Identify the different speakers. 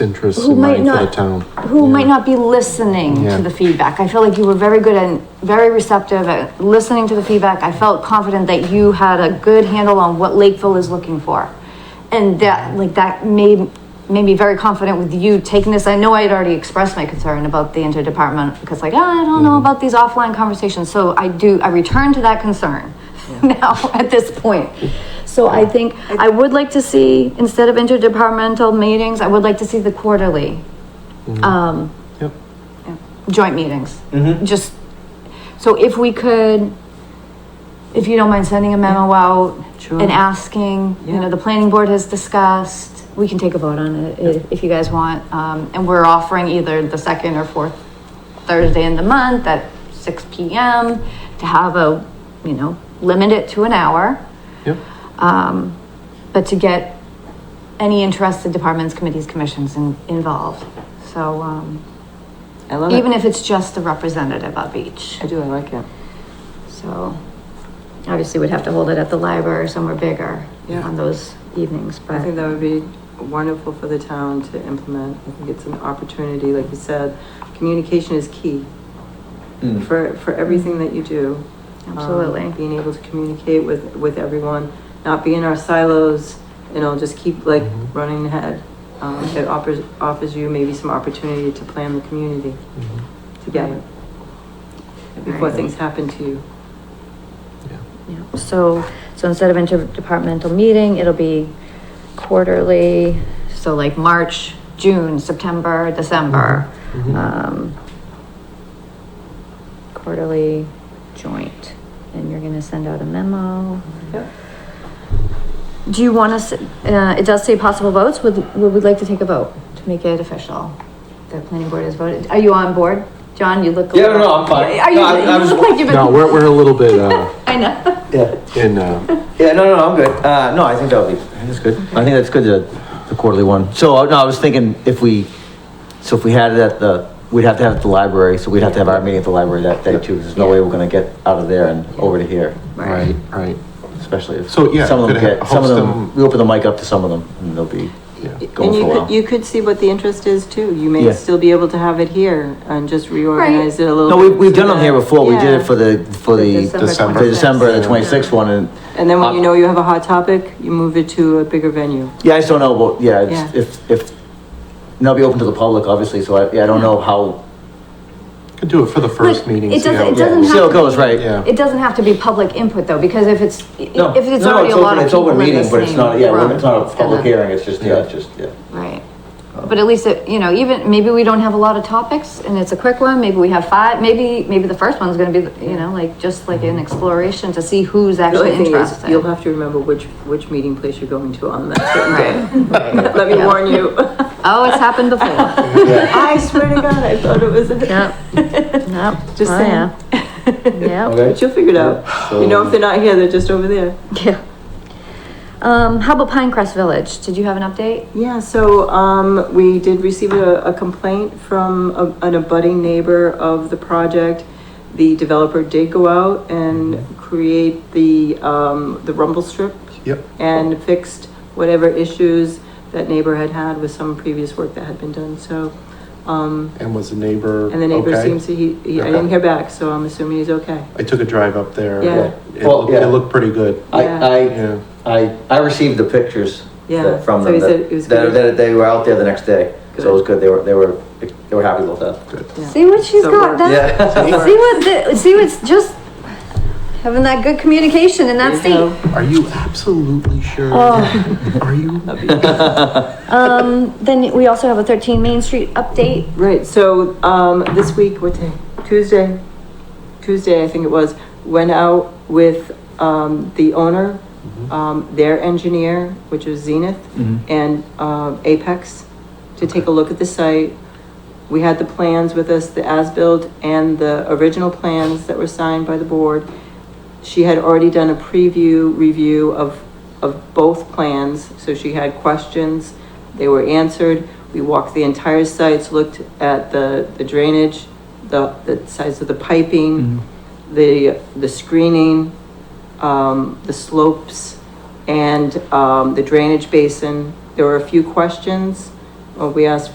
Speaker 1: interests
Speaker 2: Who
Speaker 1: in
Speaker 2: might
Speaker 1: mind for the
Speaker 2: not-
Speaker 1: town.
Speaker 2: who
Speaker 1: Yeah.
Speaker 2: might not be listening
Speaker 1: Yeah.
Speaker 2: to the feedback. I feel like you were very good and very receptive at listening to the feedback. I felt confident that you had a good handle on what Lakeville is looking for. And that, like, that made, made me very confident with you taking this. I know I had already expressed my concern about the interdepartment because like, "Ah, I don't
Speaker 1: Mm-hmm.
Speaker 2: know about these offline conversations. So I do, I return to that concern now at this point. So I think I would like to see, instead of interdepartmental meetings, I would like to see the quarterly um,
Speaker 1: Yep.
Speaker 2: joint meetings. Just, so if we could, if you don't mind sending a memo out
Speaker 3: Sure.
Speaker 2: and asking, you know, the planning board has discussed, we can take a vote on it if, if you guys want. Um, and we're offering either the second or fourth Thursday in the month at six P M to have a, you know, limit it to an hour.
Speaker 1: Yep.
Speaker 2: Um, but to get any interested departments, committees, commissions in, involved. So, um,
Speaker 3: I love
Speaker 2: even
Speaker 3: it.
Speaker 2: if it's just the representative of each.
Speaker 3: I do, I like it.
Speaker 2: So obviously we'd have to hold it at the library or somewhere bigger
Speaker 3: Yeah.
Speaker 2: on those evenings,
Speaker 3: I think
Speaker 2: but
Speaker 3: that would be wonderful for the town to implement. I think it's an opportunity, like you said, communication is key for, for everything that you do. Um,
Speaker 2: Absolutely.
Speaker 3: Being able to communicate with, with everyone, not be in our silos, you know, just keep like
Speaker 1: Mhm.
Speaker 3: running ahead. Um, it offers, offers you maybe some opportunity to plan the community
Speaker 1: Mhm.
Speaker 3: together before
Speaker 2: Right.
Speaker 3: things happen to you.
Speaker 1: Yeah.
Speaker 2: yeah. so, so instead of interdepartmental meeting, it'll be quarterly. So like March, June, September, December,
Speaker 1: Mhm.
Speaker 4: Mm-hmm.
Speaker 2: um, quarterly joint. And you're gonna send out a memo.
Speaker 3: Yep.
Speaker 2: Do you want us, uh, it does say possible votes, would, would we like to take a vote to make it official? The planning board has voted, are you on board? John, you look. a
Speaker 4: Yeah, no,
Speaker 2: little-
Speaker 4: no, I'm fine.
Speaker 2: Are you,
Speaker 4: No, I- I
Speaker 2: you
Speaker 4: was-
Speaker 2: look like you've been.
Speaker 1: No, we're, we're a little bit, uh,
Speaker 2: I know.
Speaker 4: Yeah,
Speaker 1: in, uh,
Speaker 4: yeah, no, no, no, I'm good. Uh, no, I think that'll be, I think that's good. I think that's good, the, the quarterly one. So, uh, no, I was thinking if we, so if we had it at the, we'd have to have it at the library, so we'd have to have our meeting at the library that day too. 'cause There's no way we're gonna get out of there and over to here,
Speaker 1: right, right,
Speaker 4: especially if.
Speaker 1: So, yeah,
Speaker 4: Some of
Speaker 1: could
Speaker 4: them
Speaker 1: ha-
Speaker 4: get, some of
Speaker 1: host
Speaker 4: them,
Speaker 1: them-
Speaker 4: we open the mic up to some of them and they'll be,
Speaker 1: yeah.
Speaker 4: Going
Speaker 3: And you
Speaker 4: for a
Speaker 3: could,
Speaker 4: while.
Speaker 3: you could see what the interest is too. You may
Speaker 4: Yeah.
Speaker 3: still be able to have it here and just reorganize it a little.
Speaker 4: no, we,
Speaker 3: bit
Speaker 4: we've
Speaker 3: so
Speaker 4: done them
Speaker 3: that-
Speaker 4: here before. We did
Speaker 3: Yeah.
Speaker 4: it for the, for the.
Speaker 1: December
Speaker 4: The December, the
Speaker 1: 26th.
Speaker 4: twenty-sixth one and.
Speaker 3: And then when you
Speaker 4: Uh,
Speaker 3: know you have a hot topic, you move it to a bigger venue.
Speaker 4: Yeah, I just don't know, but yeah, it's-
Speaker 3: Yeah.
Speaker 4: if, if, and I'll be open to the public, obviously, so I, yeah, I don't know how,
Speaker 1: Could do it for the first
Speaker 2: But
Speaker 1: meeting.
Speaker 2: it
Speaker 1: see how
Speaker 2: doesn't- it
Speaker 1: goes.
Speaker 2: doesn't
Speaker 4: see how it
Speaker 2: have to
Speaker 4: goes, right?
Speaker 1: Yeah.
Speaker 2: It doesn't have to be public input though, because if it's, i-
Speaker 4: No,
Speaker 2: if it's
Speaker 4: no, no,
Speaker 2: already a
Speaker 4: open-
Speaker 2: lot of
Speaker 4: it's
Speaker 2: people
Speaker 4: open
Speaker 2: in
Speaker 4: meeting,
Speaker 2: this
Speaker 4: But it's
Speaker 2: same
Speaker 4: not, yeah,
Speaker 2: room,
Speaker 4: it's not a
Speaker 2: it's
Speaker 4: public
Speaker 2: gonna-
Speaker 4: hearing, it's just, yeah, it's
Speaker 1: Yeah.
Speaker 4: just, yeah.
Speaker 2: Right. But at least, it you know, even, maybe we don't have a lot of topics and it's a quick one, maybe we have five, maybe, maybe the first one's gonna be, you know, like, just like an exploration to see who's
Speaker 3: The
Speaker 2: actually
Speaker 3: only thing is,
Speaker 2: interested.
Speaker 3: you'll have to remember which, which meeting place you're going to on that certain
Speaker 2: Right.
Speaker 3: day. Let me
Speaker 2: Yeah.
Speaker 3: warn you.
Speaker 2: Oh, it's happened before.
Speaker 3: I swear to God, I thought it was.
Speaker 2: Yep. Yep.
Speaker 3: Just
Speaker 2: Oh,
Speaker 3: saying.
Speaker 2: Yeah. Yep.
Speaker 4: Okay.
Speaker 3: But you'll figure it out. You know, if they're not here, they're just over there.
Speaker 2: Yeah. Um, how about Pinecrest Village? Did you have an update?
Speaker 3: Yeah, so, um, we did receive a, a complaint from a- an abutting neighbor of the project. The developer did go out and create the, um, the rumble strip
Speaker 1: Yep.
Speaker 3: and fixed whatever issues that neighbor had had with some previous work that had been done, so, um,
Speaker 1: And was the neighbor
Speaker 3: and the neighbor
Speaker 1: okay?
Speaker 3: seems to, he, he- I didn't hear back, so I'm assuming he's okay.
Speaker 1: I took a drive up there.
Speaker 3: Yeah.
Speaker 1: It,
Speaker 4: Well,
Speaker 1: looked,
Speaker 4: yeah.
Speaker 1: it looked pretty good.
Speaker 4: I,
Speaker 3: Yeah.
Speaker 1: Yeah.
Speaker 4: I, I, I received the pictures
Speaker 3: Yeah,
Speaker 4: that- from
Speaker 3: so
Speaker 4: them,
Speaker 3: he said it
Speaker 4: that,
Speaker 3: was
Speaker 4: that,
Speaker 3: good.
Speaker 4: that they were out there the next day, so it was good, they were, they were, they were happy with that.
Speaker 1: Good.
Speaker 3: Yeah.
Speaker 2: See what she's
Speaker 3: So
Speaker 2: got
Speaker 3: we're-
Speaker 2: done?
Speaker 4: Yeah.
Speaker 2: See what, the- see what's just having that good communication in that
Speaker 3: There you
Speaker 2: seat.
Speaker 3: go.
Speaker 1: Are you absolutely sure?
Speaker 2: Oh.
Speaker 1: Are you?
Speaker 2: Um, then we also have a thirteen Main Street update.
Speaker 3: Right, so, um, this week, what day? Tuesday, Tuesday, I think it was, went out with, um, the owner, um, their engineer, which was Zenith,
Speaker 4: Mhm.
Speaker 3: and, um, Apex, to take a look at the site. We had the plans with us, the as-built and the original plans that were signed by the board. She had already done a preview review of, of both plans, so she had questions. They were answered. We walked the entire sites, looked at the, the drainage, the, the size of the piping, the, the screening, um, the slopes, and, um, the drainage basin. There were a few questions. Uh, We asked